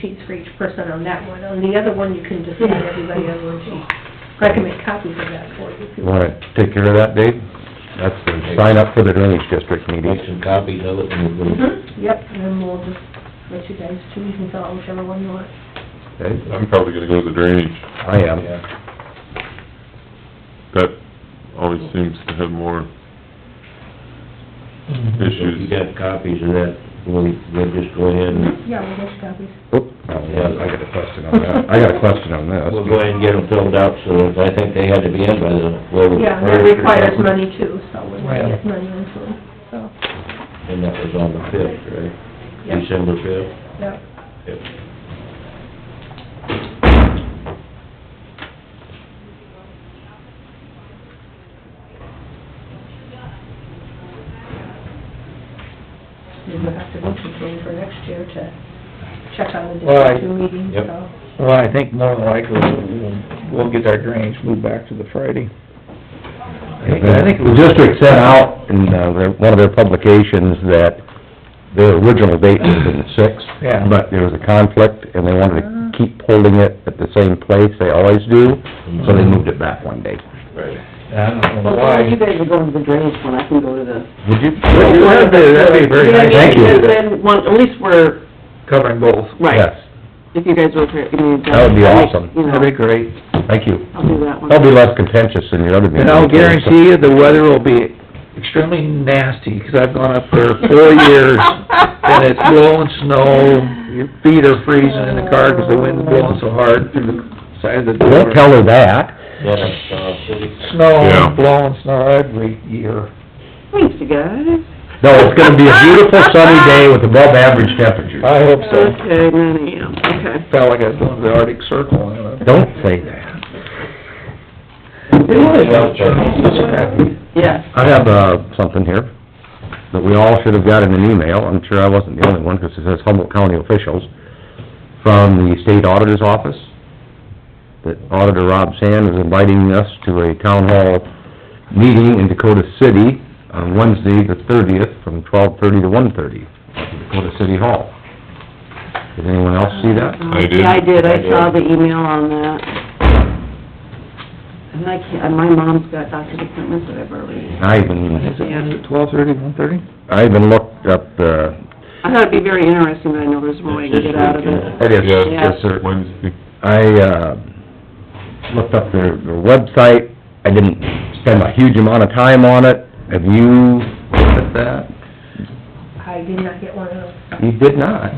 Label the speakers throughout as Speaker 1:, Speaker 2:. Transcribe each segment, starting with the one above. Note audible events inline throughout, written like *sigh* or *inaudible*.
Speaker 1: sheets for each person on that one. On the other one, you can just add everybody on one sheet. But I can make copies of that for you if you
Speaker 2: You
Speaker 1: want.
Speaker 2: wanna take care of that, Dave? That's the sign up for the drainage district
Speaker 3: Make
Speaker 2: meeting.
Speaker 3: some copies of it and we'll...
Speaker 1: Mhm, Yep, and then we'll just let you guys choose and fill out whichever one you want.
Speaker 2: Okay?
Speaker 4: I'm probably gonna go to the drainage.
Speaker 2: I am.
Speaker 3: Yeah.
Speaker 4: That always seems to have more
Speaker 3: If you
Speaker 4: Mm-hmm. issues.
Speaker 3: got copies of that, we'll, we'll just go ahead and,
Speaker 1: Yeah, we'll get you copies.
Speaker 2: Oop, no, Uh, I got a question on that. I got a question on
Speaker 3: we'll
Speaker 2: this.
Speaker 3: go ahead and get them filled out, so that- I think they had to be in by the, well...
Speaker 1: Yeah, and that requires money too, so we're gonna get
Speaker 3: Right.
Speaker 1: money into them, so,
Speaker 3: And that was on the fifth, right?
Speaker 1: yeah,
Speaker 3: December fifth?
Speaker 1: yeah. And we'll have to look again for next year to check on the
Speaker 5: Well, I-
Speaker 1: district two meetings,
Speaker 3: Yep.
Speaker 1: so.
Speaker 5: Well, I think more than likely, we'll, we'll get our drainage moved back to the Friday. I think it
Speaker 2: The
Speaker 5: was-
Speaker 2: district sent out in, uh, their- one of their publications that their original date was in the sixth.
Speaker 5: Yeah.
Speaker 2: But there was a conflict and they wanted to keep holding it at the same place they always do, so they moved it back one day.
Speaker 3: Right.
Speaker 5: I don't know
Speaker 6: Well, you
Speaker 5: why.
Speaker 6: guys are going to the drainage one, I can go to the...
Speaker 2: Would you?
Speaker 6: that'd be- that'd be
Speaker 2: very Thank
Speaker 6: Because
Speaker 2: you.
Speaker 6: Then, one, at least we're,
Speaker 5: Covering both.
Speaker 6: right,
Speaker 2: Yes,
Speaker 6: if you guys will, I mean...
Speaker 2: That would be awesome.
Speaker 6: You know,
Speaker 5: That'd be great.
Speaker 2: thank you.
Speaker 6: I'll do that one.
Speaker 2: That'll be less contentious than your other meeting.
Speaker 5: And I'll guarantee you, the weather will be extremely nasty, 'cause I've gone up there four years, and it's blowing snow, your feet are freezing in the car 'cause the wind's blowing so hard through the side of the door.
Speaker 2: Don't tell her that.
Speaker 3: Then, uh, city...
Speaker 4: Yeah.
Speaker 5: Snow, blowing snow every year.
Speaker 6: Thanks, you guys.
Speaker 2: No, it's gonna be a beautiful sunny day with above average temperatures.
Speaker 5: I hope so.
Speaker 6: Okay, nine AM, okay.
Speaker 5: Felt like I was going to the Arctic Circle, you know.
Speaker 2: Don't say that.
Speaker 6: Yes.
Speaker 2: I have, uh, something here that we all should have got in an email. I'm sure I wasn't the only one, because it says Humboldt County officials from the state auditor's office. That Auditor Rob Sand is inviting us to a town hall meeting in Dakota City on Wednesday, the thirtieth, from twelve-thirty to one-thirty, at Dakota City Hall. Did anyone else see that?
Speaker 6: Uh,
Speaker 4: I did.
Speaker 6: Yeah, I did, I saw the email on that. And I can't, and my mom's got doctor's appointments that I've already...
Speaker 2: I even,
Speaker 6: Yeah.
Speaker 5: Twelve thirty, one thirty?
Speaker 2: I even looked up, uh,
Speaker 6: I thought it'd be very interesting, but I know there's more I can get out of it.
Speaker 2: it is,
Speaker 4: Yeah,
Speaker 2: yes, sir.
Speaker 4: Wednesday.
Speaker 2: I, uh, looked up their, their website, I didn't spend a huge amount of time on it, have you looked at that?
Speaker 1: I did not get one of those.
Speaker 2: You
Speaker 1: *laughs*
Speaker 2: did not,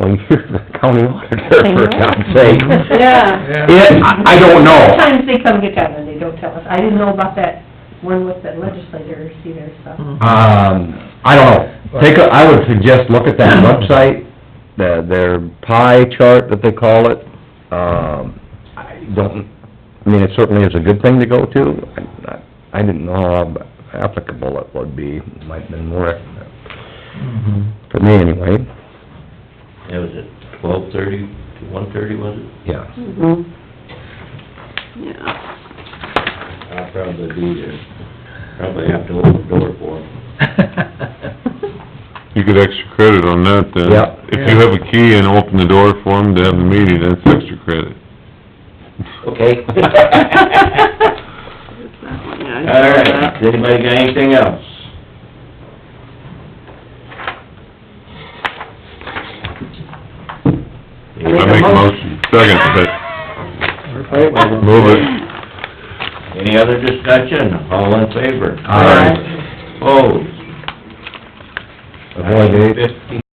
Speaker 2: well, *laughs* you're the county auditor, for God's sake.
Speaker 1: *laughs*
Speaker 6: Yeah.
Speaker 2: It, I I don't know,
Speaker 1: Sometimes they come get that one, they don't tell us. I didn't know about that one with the legislators either, so.
Speaker 2: um, I don't know, take a, I would suggest look at that website, the, their pie chart that they call it, um, I don't, I mean, it certainly is a good thing to go to, I, I- I didn't know how applicable it would be, might have been more, for me anyway,
Speaker 3: That was at twelve thirty to one thirty, was it?
Speaker 2: yeah.
Speaker 6: *laughs* Mhm. Yeah.
Speaker 3: I'll probably be there. Probably have to open the door for them.
Speaker 4: You get extra credit on that then.
Speaker 2: Yeah.
Speaker 4: If you have a key and open the door for them to have the meeting, that's extra credit.
Speaker 3: Okay.
Speaker 6: It's that one, yeah, I
Speaker 3: All
Speaker 6: saw that.
Speaker 3: right, Does anybody got anything else?
Speaker 4: I make a motion, second, but move it.
Speaker 3: Any other discussion? All in favor?
Speaker 2: Aye.
Speaker 3: Opposed?
Speaker 2: Avoid it.
Speaker 3: Fifty